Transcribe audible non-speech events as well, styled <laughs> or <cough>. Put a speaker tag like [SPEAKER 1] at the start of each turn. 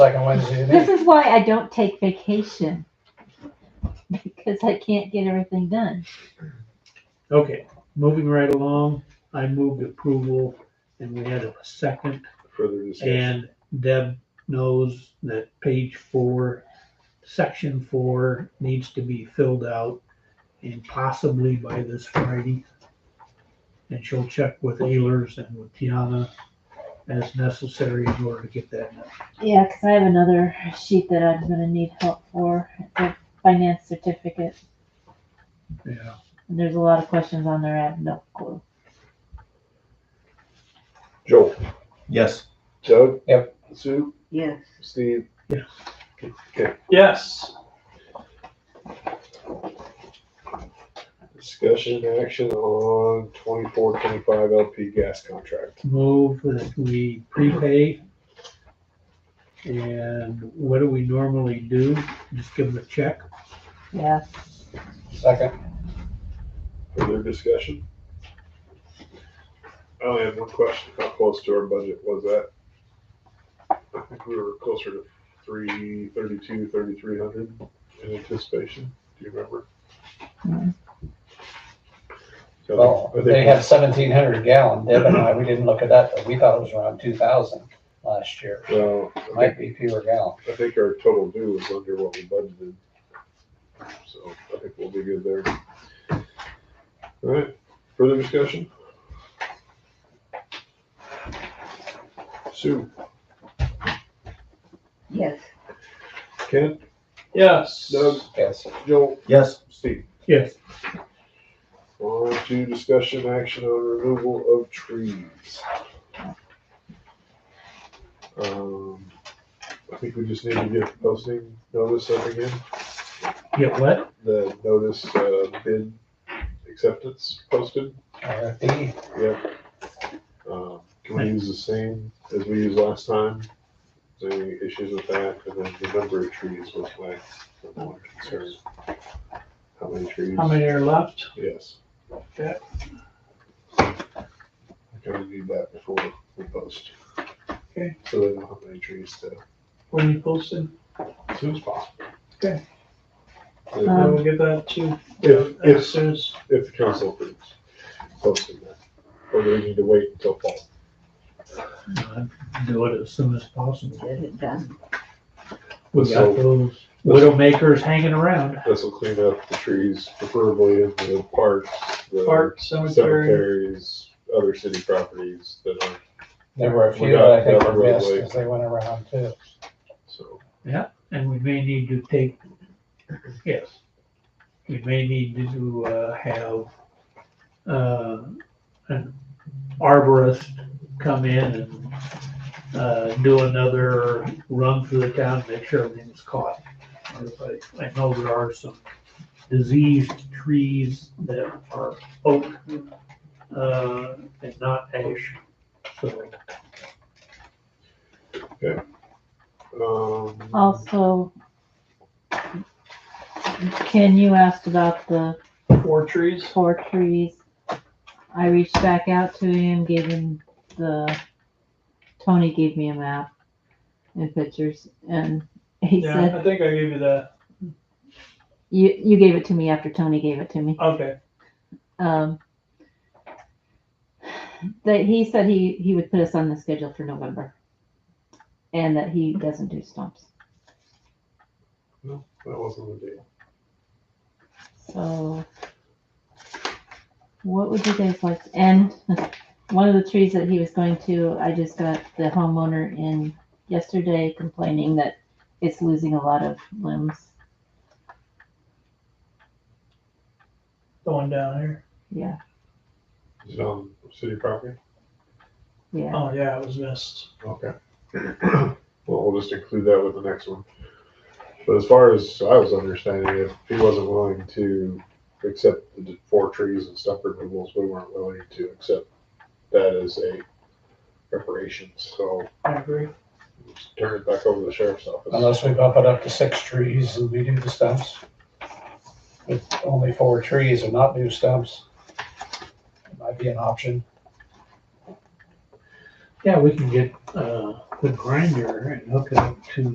[SPEAKER 1] second Wednesday of
[SPEAKER 2] This
[SPEAKER 1] each.
[SPEAKER 2] is why I don't take vacation. <laughs> Because I can't get everything done.
[SPEAKER 3] Okay, moving right along, I moved approval and we had a second.
[SPEAKER 4] Further discussion.
[SPEAKER 3] And Deb knows that page four, section four needs to be filled out and possibly by this Friday. And she'll check with Ehlers and with Tiana as necessary in order to get that. done.
[SPEAKER 2] Yeah, because I have another sheet that I'm gonna need help for, the finance certificate.
[SPEAKER 3] Yeah,
[SPEAKER 2] And there's a lot of questions on there, I have no clue.
[SPEAKER 4] Joel,
[SPEAKER 5] Yes.
[SPEAKER 4] Doug?
[SPEAKER 1] Yep.
[SPEAKER 4] Sue,
[SPEAKER 6] Yes.
[SPEAKER 4] Steve?
[SPEAKER 3] Yes.
[SPEAKER 4] Okay,
[SPEAKER 7] Yes.
[SPEAKER 4] discussion action on twenty-four, twenty-five LP gas contract.
[SPEAKER 3] move that we prepay. And what do we normally do? Just give them a check?
[SPEAKER 2] Yeah,
[SPEAKER 1] Second,
[SPEAKER 4] Further discussion? I only have one question. How close to our budget was that? I think we were closer to three, thirty-two, thirty-three hundred in anticipation. Do you remember?
[SPEAKER 2] Hmm.
[SPEAKER 4] So,
[SPEAKER 1] well,
[SPEAKER 4] I think
[SPEAKER 1] they had seventeen hundred gallon, Deb and I, we didn't look at that, but we thought it was around two thousand last year.
[SPEAKER 4] Well, I think,
[SPEAKER 1] Might be fewer gallon.
[SPEAKER 4] I think our total due was under what we budgeted. So I think we'll be good there. All right, further discussion? Sue,
[SPEAKER 6] Yes.
[SPEAKER 4] Ken,
[SPEAKER 7] Yes.
[SPEAKER 4] Doug,
[SPEAKER 1] Yes,
[SPEAKER 4] Joel,
[SPEAKER 5] Yes.
[SPEAKER 4] Steve.
[SPEAKER 3] Yes.
[SPEAKER 4] On to discussion action on removal of trees. Um, I think we just need to get posting notice up again,
[SPEAKER 3] Get what?
[SPEAKER 4] the notice, uh, bid acceptance posted.
[SPEAKER 1] RFP,
[SPEAKER 4] Um, Can we use the same as we used last time? Is there Any issues with that? And then the number of trees was my number one concern. How many trees?
[SPEAKER 7] How many are left?
[SPEAKER 4] Yes.
[SPEAKER 7] Yeah.
[SPEAKER 4] I can review that before we post.
[SPEAKER 7] Okay.
[SPEAKER 4] So they know how many trees to,
[SPEAKER 7] When you posted?
[SPEAKER 4] as soon as possible.
[SPEAKER 7] Okay.
[SPEAKER 4] And
[SPEAKER 2] Um,
[SPEAKER 7] We'll get that to,
[SPEAKER 4] If,
[SPEAKER 7] as
[SPEAKER 4] if,
[SPEAKER 7] soon as,
[SPEAKER 4] if the council approves posting that, or do we need to wait until fall?
[SPEAKER 3] Uh, Do it as soon as possible.
[SPEAKER 6] Get it done.
[SPEAKER 3] We got those widowmakers hanging around.
[SPEAKER 4] This will clean up the trees preferably in the parks, the
[SPEAKER 7] park, cemetery.
[SPEAKER 4] cemeteries, other city properties that aren't,
[SPEAKER 1] there were a
[SPEAKER 4] We
[SPEAKER 1] few
[SPEAKER 4] got
[SPEAKER 1] that I think
[SPEAKER 4] that
[SPEAKER 1] were missed
[SPEAKER 4] roadway.
[SPEAKER 1] as they went around too.
[SPEAKER 4] so.
[SPEAKER 3] And we may need to take, yes, we may need to uh, have uh, an arborist come in and uh, do another run through the town, make sure everything's caught. I I know there are some diseased trees that are oak uh, and not ash, so.
[SPEAKER 4] Um,
[SPEAKER 2] also. Ken, you asked about the
[SPEAKER 7] Four trees.
[SPEAKER 2] four trees. I reached back out to him, gave him the, Tony gave me a map and pictures, and he
[SPEAKER 7] Yeah,
[SPEAKER 2] said,
[SPEAKER 7] I think I gave you that.
[SPEAKER 2] you, you gave it to me after Tony gave it to me.
[SPEAKER 7] Okay.
[SPEAKER 2] Um, that he said he, he would put us on the schedule for November. And that he doesn't do stumps,
[SPEAKER 4] that wasn't the deal.
[SPEAKER 2] so. What would you guys like, and one of the trees that he was going to, I just got the homeowner in yesterday complaining that it's losing a lot of limbs.
[SPEAKER 7] The one down here.
[SPEAKER 2] Yeah,
[SPEAKER 4] Is it on city property?
[SPEAKER 2] yeah,
[SPEAKER 7] Oh, yeah, it was missed.
[SPEAKER 4] Okay. <clears throat> Well, we'll just include that with the next one. But as far as I was understanding, if he wasn't willing to accept the four trees and stump removals, we weren't willing to accept that as a reparation, so
[SPEAKER 7] I agree.
[SPEAKER 4] we'll just turn it back over to the sheriff's office.
[SPEAKER 1] Unless we bump it up to six trees and we do the stumps. With only four trees and not do stumps. Might be an option.
[SPEAKER 3] Yeah, we can get, uh, the grinder and hook it up to